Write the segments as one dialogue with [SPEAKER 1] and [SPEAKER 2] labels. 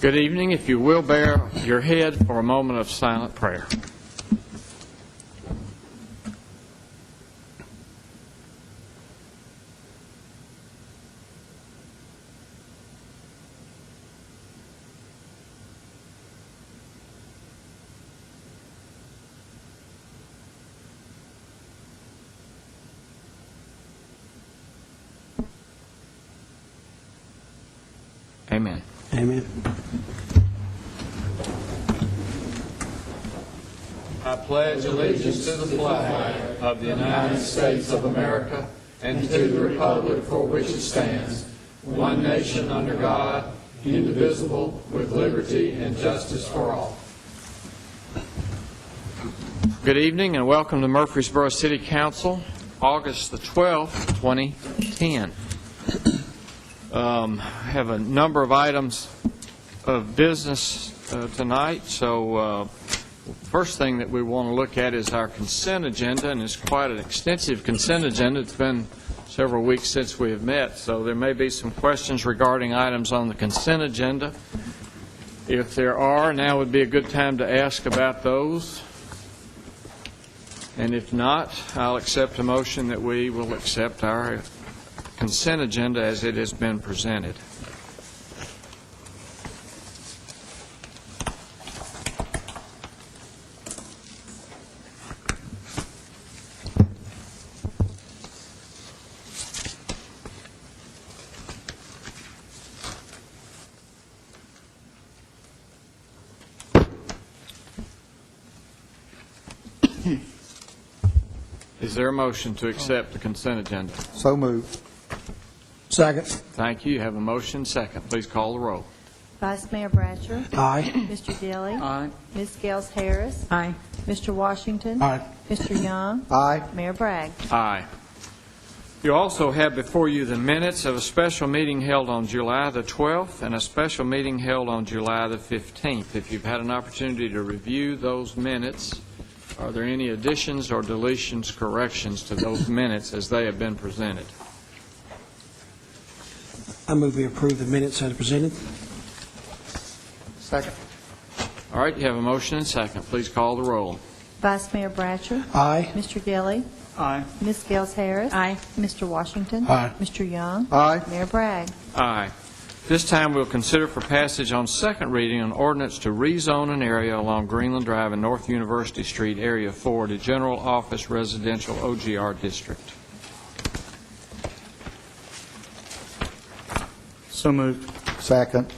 [SPEAKER 1] Good evening. If you will bear your head for a moment of silent prayer. Amen.
[SPEAKER 2] Amen.
[SPEAKER 1] I pledge allegiance to the flag of the United States of America and to the republic for which it stands, one nation under God, indivisible, with liberty and justice for all. Good evening and welcome to Murfreesboro City Council, August the 12th, 2010. Um, I Have a number of items of business uh, tonight, so uh, First thing that we want to look at is our consent agenda, and it's quite an extensive consent agenda. It's been several weeks since we have met, so there may be some questions regarding items on the consent agenda. If there are, now would be a good time to ask about those. And if not, I'll accept a motion that we will accept our consent agenda as it has been presented. Is there a motion to accept the consent agenda?
[SPEAKER 2] So moved. Second.
[SPEAKER 1] Thank you. You have a motion, second. Please call the roll.
[SPEAKER 3] Vice Mayor Bratcher.
[SPEAKER 2] Aye.
[SPEAKER 3] Mr. Dilly.
[SPEAKER 1] Aye.
[SPEAKER 3] Ms. Gels Harris.
[SPEAKER 4] Aye.
[SPEAKER 3] Mr. Washington.
[SPEAKER 2] Aye.
[SPEAKER 3] Mr. Young.
[SPEAKER 2] Aye.
[SPEAKER 3] Mayor Bragg.
[SPEAKER 1] Aye. You also have before you the minutes of a special meeting held on July the 12th and a special meeting held on July the 15th. If you've had an opportunity to review those minutes, are there any additions or deletions, corrections to those minutes as they have been presented?
[SPEAKER 2] I move we approve the minutes as presented.
[SPEAKER 1] All right, you have a motion and second. Please call the roll.
[SPEAKER 3] Vice Mayor Bratcher.
[SPEAKER 2] Aye.
[SPEAKER 3] Mr. Dilly.
[SPEAKER 2] Aye.
[SPEAKER 3] Ms. Gels Harris.
[SPEAKER 4] Aye.
[SPEAKER 3] Mr. Washington.
[SPEAKER 2] Aye.
[SPEAKER 3] Mr. Young.
[SPEAKER 2] Aye.
[SPEAKER 3] Mayor Bragg.
[SPEAKER 1] Aye. This time, we'll consider for passage on second reading an ordinance to rezone an area along Greenland Drive and North University Street, Area 4, to General Office Residential OGR District.
[SPEAKER 5] So moved.
[SPEAKER 2] Second.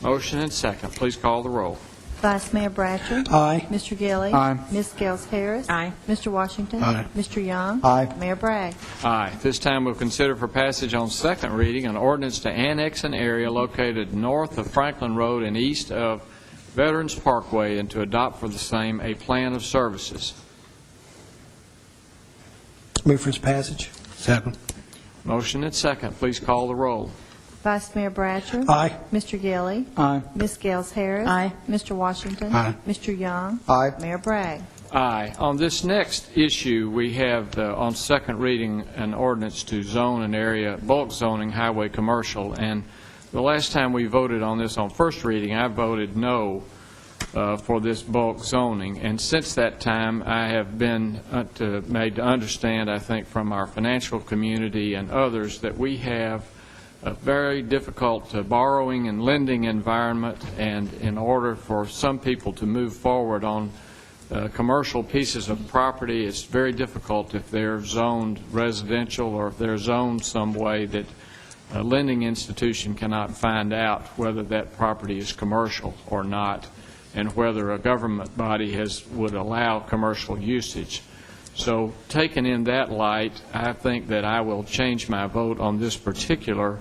[SPEAKER 1] Motion and second. Please call the roll.
[SPEAKER 3] Vice Mayor Bratcher.
[SPEAKER 2] Aye.
[SPEAKER 3] Mr. Dilly.
[SPEAKER 5] Aye.
[SPEAKER 3] Ms. Gels Harris.
[SPEAKER 4] Aye.
[SPEAKER 3] Mr. Washington.
[SPEAKER 2] Aye.
[SPEAKER 3] Mr. Young.
[SPEAKER 2] Aye.
[SPEAKER 3] Mayor Bragg.
[SPEAKER 1] Aye. This time, we'll consider for passage on second reading an ordinance to annex an area located north of Franklin Road and east of Veterans Parkway and to adopt for the same a plan of services.
[SPEAKER 2] Move for its passage. Second.
[SPEAKER 1] Motion and second. Please call the roll.
[SPEAKER 3] Vice Mayor Bratcher.
[SPEAKER 2] Aye.
[SPEAKER 3] Mr. Dilly.
[SPEAKER 5] Aye.
[SPEAKER 3] Ms. Gels Harris.
[SPEAKER 4] Aye.
[SPEAKER 3] Mr. Washington.
[SPEAKER 2] Aye.
[SPEAKER 3] Mr. Young.
[SPEAKER 2] Aye.
[SPEAKER 3] Mayor Bragg.
[SPEAKER 1] Aye. On this next issue, we have uh, on second reading an ordinance to zone an area, bulk zoning highway commercial, and the last time we voted on this on first reading, I voted no uh, for this bulk zoning, and since that time, I have been uh, to- made to understand, I think, from our financial community and others, that we have a very difficult uh, borrowing and lending environment, and in order for some people to move forward on uh, commercial pieces of property, it's very difficult if they're zoned residential or if they're zoned some way that a lending institution cannot find out whether that property is commercial or not, and whether a government body has, would allow commercial usage. So taken in that light, I think that I will change my vote on this particular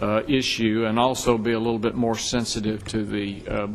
[SPEAKER 1] uh, issue and also be a little bit more sensitive to the uh,